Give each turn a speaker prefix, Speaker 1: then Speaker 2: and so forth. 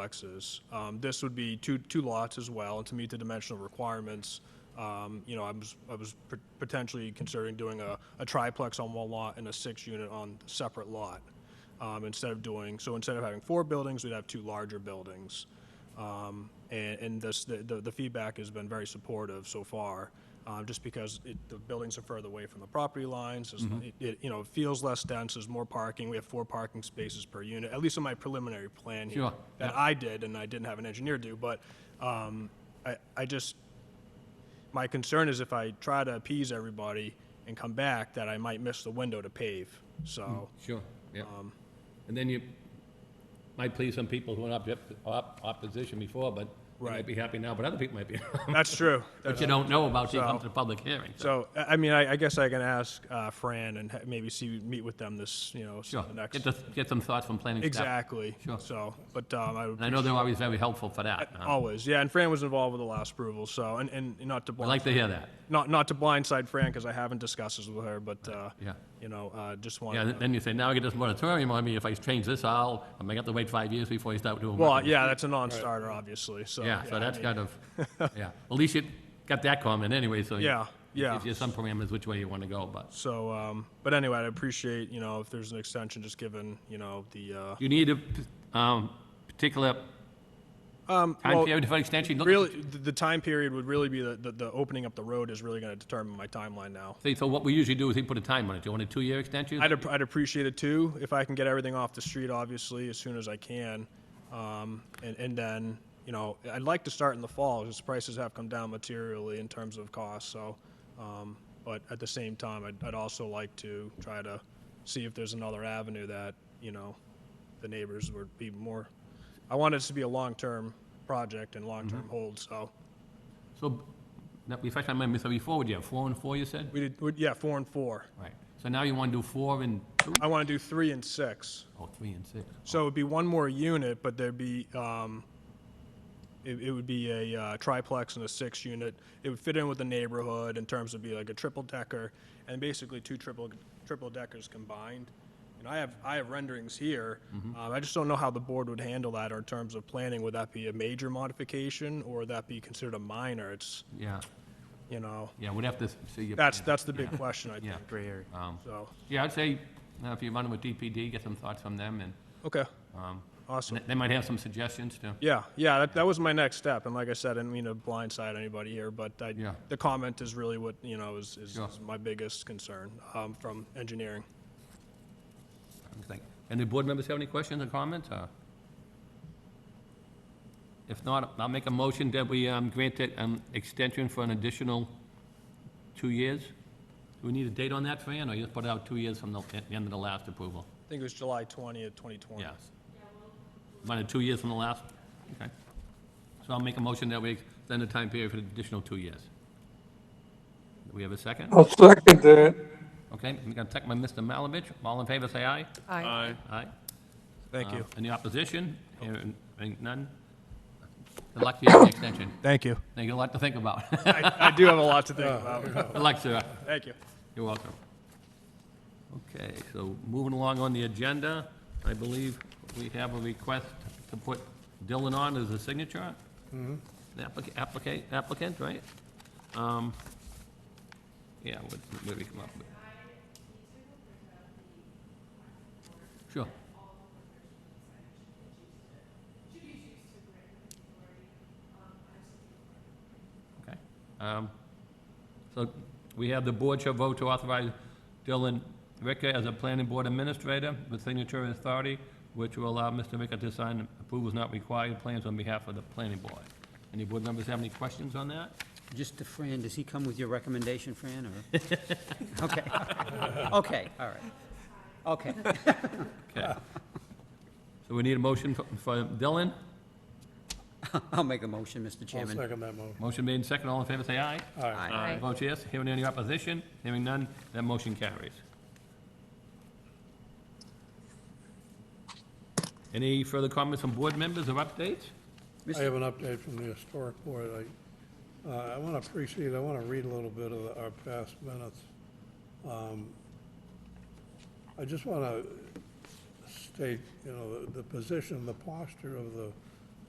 Speaker 1: duplexes. Um, This would be two, two lots as well, and to meet the dimensional requirements, um, you know, I was, I was pot- potentially considering doing a a triplex on one lot and a six-unit on a separate lot, um, instead of doing, so instead of having four buildings, we'd have two larger buildings. Um, And, and this, the, the the feedback has been very supportive so far, uh, just because it, the buildings are further away from the property lines. it's- It, it, you know, it feels less dense, there's more parking, we have four parking spaces per unit, at least in my preliminary plan here.
Speaker 2: Sure,
Speaker 1: That I did and I didn't have an engineer do, but, um, I, I just, my concern is if I try to appease everybody and come back, that I might miss the window to pave, so.
Speaker 2: Sure, yeah.
Speaker 1: Um,
Speaker 2: And then you might please some people who are in object- op- opposition before, but they
Speaker 1: Right.
Speaker 2: might be happy now, but other people might be,
Speaker 1: That's true.
Speaker 2: but you don't know about till you come
Speaker 1: So-
Speaker 2: to the public hearing.
Speaker 1: So, I I mean, I, I guess I can ask uh, Fran and ha- maybe see, meet with them this, you know, s-
Speaker 2: Sure,
Speaker 1: the
Speaker 2: get,
Speaker 1: next.
Speaker 2: the- get some thoughts from planning staff.
Speaker 1: Exactly.
Speaker 2: Sure.
Speaker 1: So, but um, I would,
Speaker 2: And I uh, know they're always very helpful for that. huh?
Speaker 1: always, yeah, and Fran was involved with the last approval, so, and, and not to,
Speaker 2: I
Speaker 1: blind-
Speaker 2: like to hear that,
Speaker 1: not, not to blindside Fran, because I haven't discussed this with her, but, uh,
Speaker 2: yeah.
Speaker 1: you know, uh, just
Speaker 2: Yeah,
Speaker 1: wanted
Speaker 2: th-
Speaker 1: to.
Speaker 2: then you say, now I get this moratorium on me, if I change this, I'll, I'm gonna have to wait five years before you start doing.
Speaker 1: Well,
Speaker 2: work."
Speaker 1: yeah, that's a non-starter, obviously, so.
Speaker 2: Yeah, so
Speaker 1: I
Speaker 2: that's
Speaker 1: mean,
Speaker 2: kind of, yeah, at least you got that comment anyway, so. you-
Speaker 1: Yeah,
Speaker 2: it
Speaker 1: yeah.
Speaker 2: Gives you some parameters which way you wanna go, but.
Speaker 1: So, um, but anyway, I'd appreciate, you know, if there's an extension, just given, you know, the, uh,
Speaker 2: Do you need a p- um, particular
Speaker 1: um,
Speaker 2: time
Speaker 1: well,
Speaker 2: period for extension? Look at
Speaker 1: Really, the, the time period would really be the, the, the opening up the road is really going to determine my timeline now.
Speaker 2: the- So what we usually do is we put a time on it. Do you want a two-year extension?
Speaker 1: I'd, ap- I'd appreciate it too, if I can get everything off the street, obviously, as soon as I can. Um, and, and then, you know, I'd like to start in the fall, because prices have come down materially in terms of cost, so. Um, but at the same time, I'd, I'd also like to try to see if there's another avenue that, you know, the neighbors would be more, I want this to be a long-term project and long-term hold, so.
Speaker 2: So, now, refresh my memory, so before, would you have four and four, you said?
Speaker 1: We did, we- yeah, four and four.
Speaker 2: Right. So now you want to do four and two?
Speaker 1: I want to do three and six.
Speaker 2: Oh, three and six.
Speaker 1: So it'd be one more unit, but there'd be, um, it, it would be a uh, triplex and a six unit. It would fit in with the neighborhood in terms of be like a triple decker and basically two triple, triple deckers combined. And I have, I have renderings here.
Speaker 2: Mm-hmm.
Speaker 1: Um, I just don't know how the board would handle that or in terms of planning. Would that be a major modification or would that be considered a minor? It's,
Speaker 2: Yeah,
Speaker 1: you know,
Speaker 2: yeah, we'd have to s- see your.
Speaker 1: that's, that's the big question, I think.
Speaker 2: Yeah.
Speaker 3: gray area.
Speaker 2: um,
Speaker 1: So,
Speaker 2: Yeah, I'd say, uh, if you run with DPD, get some thoughts from them, and
Speaker 1: okay,
Speaker 2: um,
Speaker 1: awesome.
Speaker 2: and they might have some suggestions to.
Speaker 1: Yeah, yeah, that, that was my next step, and like I said, I didn't mean to blindside anybody here, but I,
Speaker 2: Yeah.
Speaker 1: the comment is really what, you know, is, is
Speaker 2: Sure.
Speaker 1: is my biggest concern, um, from engineering.
Speaker 2: Thank- Any board members have any questions or comments? or? If not, I'll make a motion that we um, grant it an extension for an additional two years. Do we need a date on that, Fran, or you just put out two years from the at the end of the last approval?
Speaker 1: I think it was July twentieth, twenty twenty.
Speaker 2: Yes. About two years from the last? Okay. So I'll make a motion that we extend the time period for an additional two years. Do we have a second?
Speaker 4: I'll second that.
Speaker 2: Okay, I'm going to take my Mr. Malovich. All in favor, say aye.
Speaker 3: Aye.
Speaker 2: Aye.
Speaker 1: Thank you.
Speaker 2: Uh, Any opposition? Hearing hearing none? Good luck to you on the extension.
Speaker 1: Thank you.
Speaker 2: Now, you got a lot to think about.
Speaker 1: I, I do have a lot to think about.
Speaker 2: Good luck, sir.
Speaker 1: Thank you.
Speaker 2: You're welcome. Okay, so moving along on the agenda, I believe we have a request to put Dylan on as a signature. The applica- Applicant, applicant, right? Um, Yeah, what, what did we come up with? Sure. Okay. Um, So we have the board shall vote to authorize Dylan Ricker as a planning board administrator with signatory authority, which will allow Mr. Ricker to sign approvals not required plans on behalf of the planning board. Any board members have any questions on that?
Speaker 3: Just to Fran, does he come with your recommendation, Fran, or? Okay, okay, all right. Okay,
Speaker 2: Okay. So we need a motion for- for Dylan.
Speaker 3: I'll make a motion, Mr.
Speaker 5: I'll
Speaker 3: Chairman.
Speaker 5: second that motion.
Speaker 2: Motion made and second. All in favor, say aye.
Speaker 5: Aye.
Speaker 3: Aye.
Speaker 2: Vote yes. Hearing any opposition? Hearing none, that motion carries. Any further comments from board members or updates?
Speaker 5: I have an update from the historic board. I, uh, I want to precede, I want to read a little bit of the- our past minutes. Um, I just want to state, you know, the- the position, the posture of the